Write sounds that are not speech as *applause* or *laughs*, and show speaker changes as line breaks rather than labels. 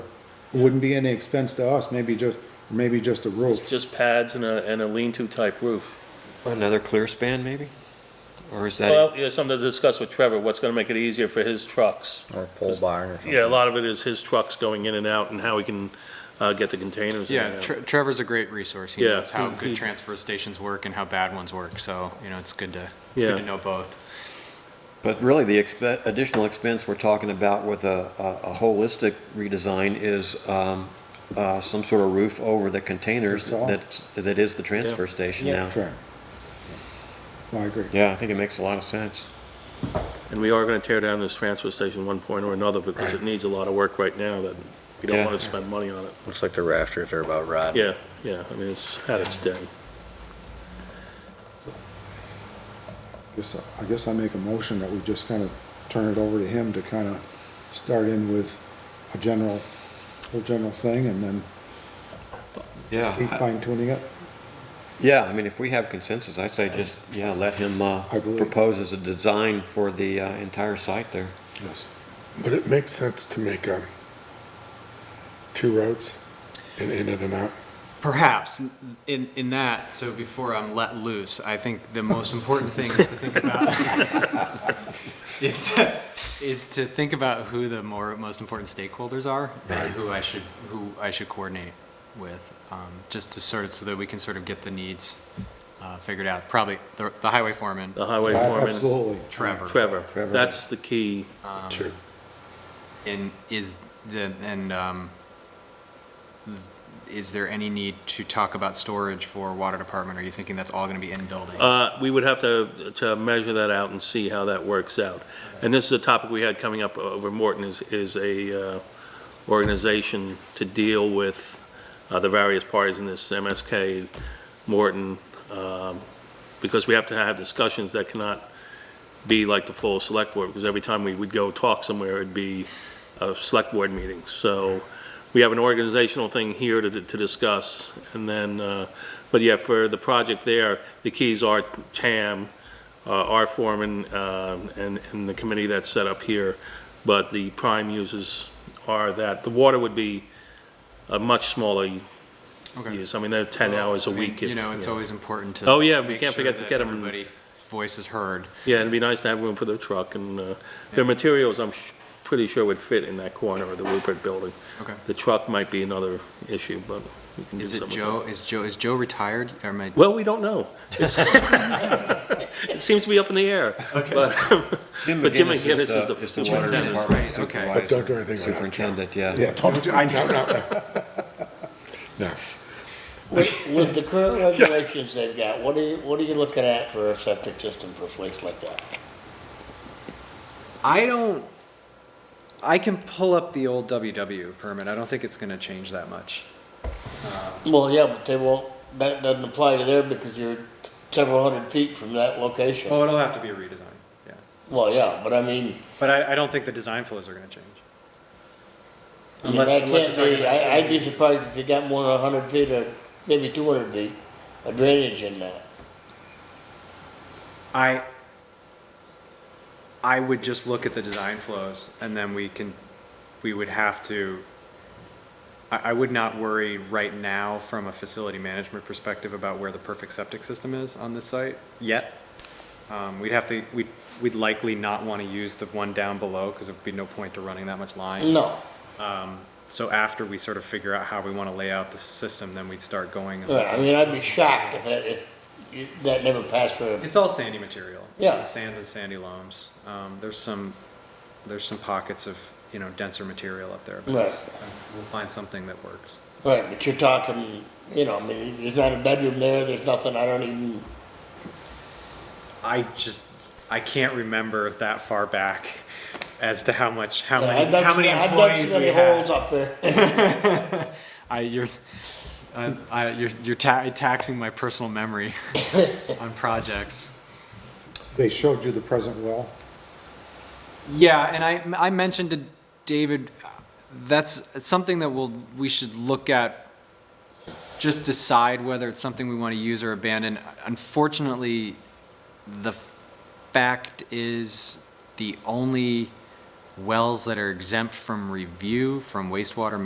Wouldn't be any expense to us, maybe just, maybe just a
It's
roof.
just pads and a, and a lean-to type roof.
Another clear span, maybe? Or is that,
Well, yeah, something to discuss with Trevor, what's gonna make it easier for his trucks.
Or pole barn or something.
Yeah, a lot of it is his trucks going in and out and how he can, uh, get the containers in and
Yeah,
out.
Tre- Trevor's a great resource. He
Yeah,
knows how
he- he-
good transfer stations work and how bad ones work, so, you know, it's good to, it's
Yeah.
good to know both.
but really, the expe- additional expense we're talking about with a, a a holistic redesign is um, uh, some sort of roof over the containers
That's all.
that's, that is the transfer station now.
Sure. No, I agree.
Yeah, I think it makes a lot of sense.
And we are gonna tear down this transfer station one point or another because it needs a lot of work right now that we don't
Yeah.
wanna spend money on it.
Looks like the rafters are about rotten.
Yeah, yeah, I mean, it's had its day.
Guess, I guess I make a motion that we just kind of turn it over to him to kind of start in with a general, a general thing and then keep
Yeah,
fine tuning it.
yeah, I mean, if we have consensus, I say just, yeah, let him uh,
I believe-
propose as a design for the uh, entire site there.
Yes.
But it makes sense to make, um, two roads and in and an out.
Perhaps in, in that, so before I'm let loose, I think the most important thing is to think about *laughs* is to, is to think about who the more most important stakeholders are and who I should who I should coordinate with, um, just to sort of so that we can sort of get the needs uh, figured out. Probably the, the highway foreman,
The highway foreman,
Absolutely.
Trevor,
Trevor,
Trevor.
that's the key.
Sure.
and is the and um, is there any need to talk about storage for water department? Are you thinking that's all going to be in building?
Uh, we would have to, to measure that out and see how that works out. And this is a topic we had coming up over Morton is, is a, uh, organization to deal with, uh, the various parties in this MSK, Morton, um, because we have to have discussions that cannot be like the full select board, because every time we would go talk somewhere, it'd be a select board meeting. So we have an organizational thing here to, to discuss, and then, uh, but yeah, for the project there, the keys are TAM, uh, our foreman, um, and, and the committee that's set up here, but the prime uses are that, the water would be a much smaller
Okay.
use, I mean, they're 10 hours a
I mean,
week. if-
You know, it's always important to.
Oh, yeah, we
make
can't
sure
forget to
that
get 'em-
Everybody, voice is heard.
Yeah, it'd be nice to have room for the truck, and uh, their
Yeah.
materials, I'm sh- pretty sure would fit in that corner of the Rupert Building.
Okay.
The truck might be another issue, but. we can do
Is it
something.
Joe, is Joe, is Joe retired or am I?
Well, we don't know.
*laughs*
It's- *laughs* It seems to be up in the air. But *laughs* But Jim McGinnis is
uh,
the
water
superintendent.
department
Right, okay.
But don't
supervisor,
do anything like that.
Superintendent, yeah.
Don't do- I know, no, no. No.
With with the current
*laughs*
regulations they've got, what are you, what are you looking at for a septic system for a place like that?
I don't, I can pull up the old WW permit. I don't think it's going to change that much.
Well, yeah, but they won't, that doesn't apply to there because you're several hundred feet from that location.
Oh, it'll have to be a redesign, yeah.
Well, yeah, but I mean,
But I, I don't think the design flows are going to change.
I mean, that
Unless, unless
can't
we're talking
be,
about.
I, I'd be
changing-
surprised if you got more than a hundred feet or maybe two hundred feet of drainage in that.
I, I would just look at the design flows and then we can, we would have to, I, I would not worry right now from a facility management perspective about where the perfect septic system is on this site yet. Um, we'd have to, we, we'd likely not want to use the one down below because there'd be no point to running that much line.
No,
So after we sort of figure out how we want to lay out the system, then we'd start going.
Right, I mean, I'd be shocked if that, if you- that never passed for, a-
It's all sandy material.
Yeah.
The Sands and sandy loams. Um, there's some, there's some pockets of, you know, denser material up there, but it's- uh, we'll find something that works.
right, but you're talking, you know, I mean, there's not a bedroom there, there's nothing, I don't even,
I just, I can't remember that far back as to how much, how
I
many,
dug
how many
so-
employees we
I dug so many holes
had.
up there. *laughs*
*laughs* I, you're, I, I, you're, you're ta- taxing my personal memory *laughs* on projects.
They showed you the present well.
Yeah, and I, I mentioned to David, that's something that we'll, we should look at, just decide whether it's something we want to use or abandon. Unfortunately, the fact is, the only wells that are exempt from review from wastewater